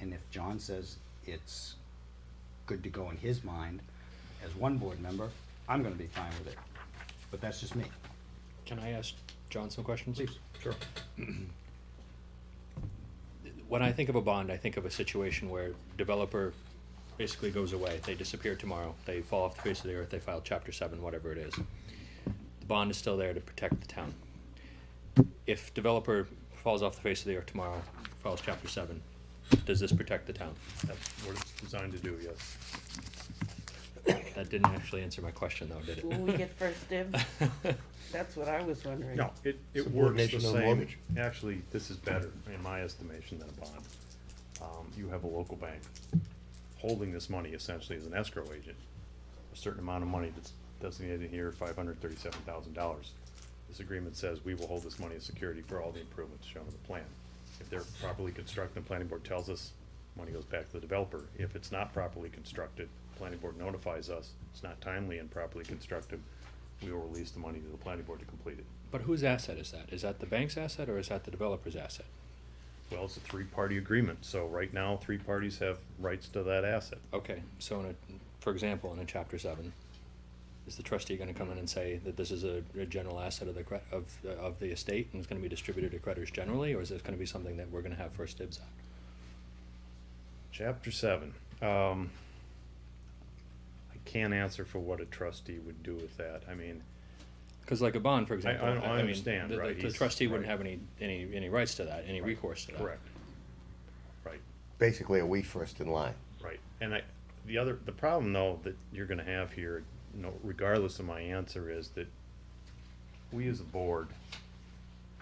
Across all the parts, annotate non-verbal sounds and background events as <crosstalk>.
And if John says it's good to go in his mind, as one board member, I'm gonna be fine with it. But that's just me. Can I ask John some questions? Please. Sure. When I think of a bond, I think of a situation where developer basically goes away, they disappear tomorrow, they fall off the face of the earth, they file chapter seven, whatever it is. The bond is still there to protect the town. If developer falls off the face of the earth tomorrow, files chapter seven, does this protect the town? That's what it's designed to do, yes. That didn't actually answer my question though, did Will we get <laughs> first dibs? it? That's what I was wondering. No, it, it works the Subordination on same. mortgage. Actually, this is better, in my estimation, than a bond. Um, you have a local bank holding this money essentially as an escrow agent. A certain amount of money that's designated here, five hundred thirty-seven thousand dollars. This agreement says we will hold this money as security for all the improvements shown in the plan. If they're properly constructed, the planning board tells us, money goes back to the developer. If it's not properly constructed, planning board notifies us, it's not timely and properly constructed, we will release the money to the planning board to complete it. But whose asset is that? Is that the bank's asset or is that the developer's asset? Well, it's a three-party agreement, so right now, three parties have rights to that asset. Okay, so in a, for example, in a chapter seven, is the trustee gonna come in and say that this is a, a general asset of the cre- of, of the estate and it's gonna be distributed to creditors generally, or is this gonna be something that we're gonna have first dibs on? Chapter seven, um, I can't answer for what a trustee would do with that, I mean, Cause like a bond, for example, I I, I mean, understand, the, right, the- the he's- trustee wouldn't right. have any, any, any rights to that, any recourse to that. correct. Right, Basically, are we first in line? right, and I, the other, the problem though, that you're gonna have here, you know, regardless of my answer, is that we as a board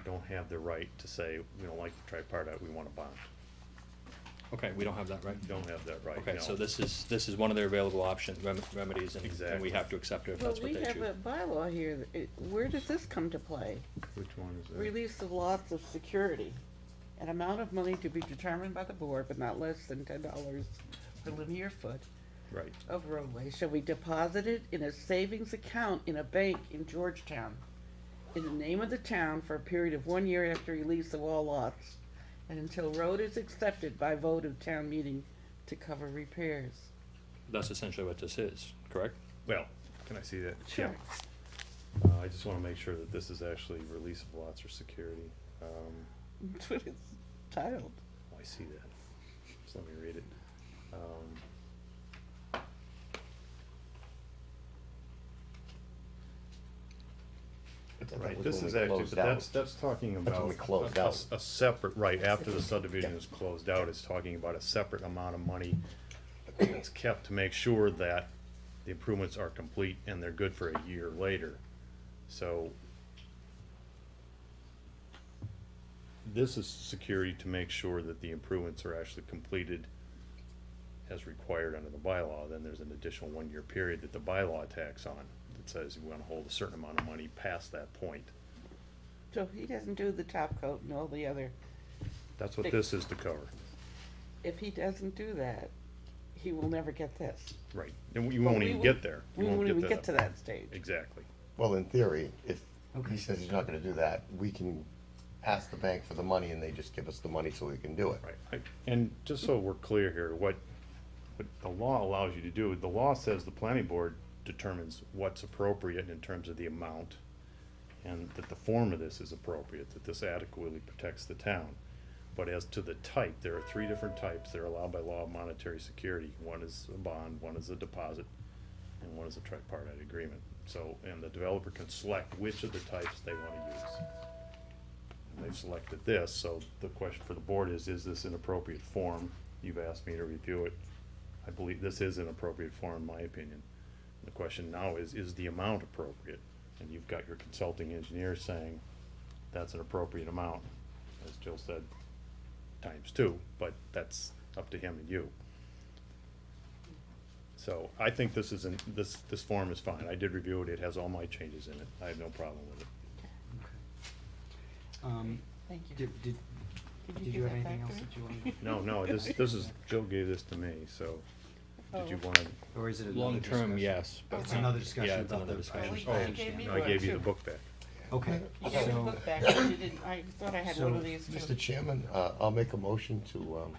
don't have the right to say, we don't like the tripartite, we want a bond, Okay, we don't have that, right? we don't have that right, Okay, no. so this is, this is one of their available options, rem- remedies, and, and we Exactly. have to accept it if Well, that's what we they choose. have a bylaw here, that it- where does this come to play? Which one is that? Release of lots of security, an amount of money to be determined by the board, but not less than ten dollars per linear foot Right. of roadway shall be deposited in a savings account in a bank in Georgetown in the name of the town for a period of one year after release of all lots and until road is accepted by vote of town meeting to cover repairs. That's essentially what this is, correct? Well, can I see that? Sure. Yeah. Uh, I just wanna make sure that this is actually release of lots or security. Um, That's what it's titled. oh, I see that. Just let me read it. Um, Right, this is actually, but that's, that's talking That's when about. we closed a- a- out. A separate, right, after the subdivision is closed out, it's talking about a separate amount of money that's kept to make sure that the improvements are complete and they're good for a year later. So this is security to make sure that the improvements are actually completed as required under the bylaw, then there's an additional one-year period that the bylaw tacks on. That says we wanna hold a certain amount of money past that point. So he doesn't do the top coat and all the other, That's what this is to cover, if he doesn't do that, he will never get this. right, and you But won't we even won't- get there. You We won't even to get to that stage. Exactly, Well, in theory, if Okay. he says he's not gonna do that, we can ask the bank for the money and they just give us the money so we can do it. right, I- and just so we're clear here, what, what the law allows you to do, the law says the planning board determines what's appropriate in terms of the amount, and that the form of this is appropriate, that this adequately protects the town. But as to the type, there are three different types that are allowed by law of monetary security. One is a bond, one is a deposit, and one is a tripartite agreement. So, and the developer can select which of the types they wanna use. And They've selected this, so the question for the board is, is this an appropriate form? You've asked me to review it. I believe this is an appropriate form, in my opinion. The question now is, is the amount appropriate? And you've got your consulting engineer saying, that's an appropriate amount, as Jill said, times two, but that's up to him and you. So I think this is, in this, this form is fine. I did review it. It has all my changes in it. I have no problem with it. Um, Thank you. did, did, Could did give you have that anything back else to me? that you <laughs> wanted? No, no, this, this is, Jill gave this to me, so, did you wanna, Or is it another Long-term, discussion? yes, but It's another Yeah, discussion about it's the. another I discussion. Oh, I you understand. gave me I gave you the book back. Okay, You got your so, book back, but you didn't, I thought I had so, one of these too. Mr. Chairman, uh, I'll make a motion to, um,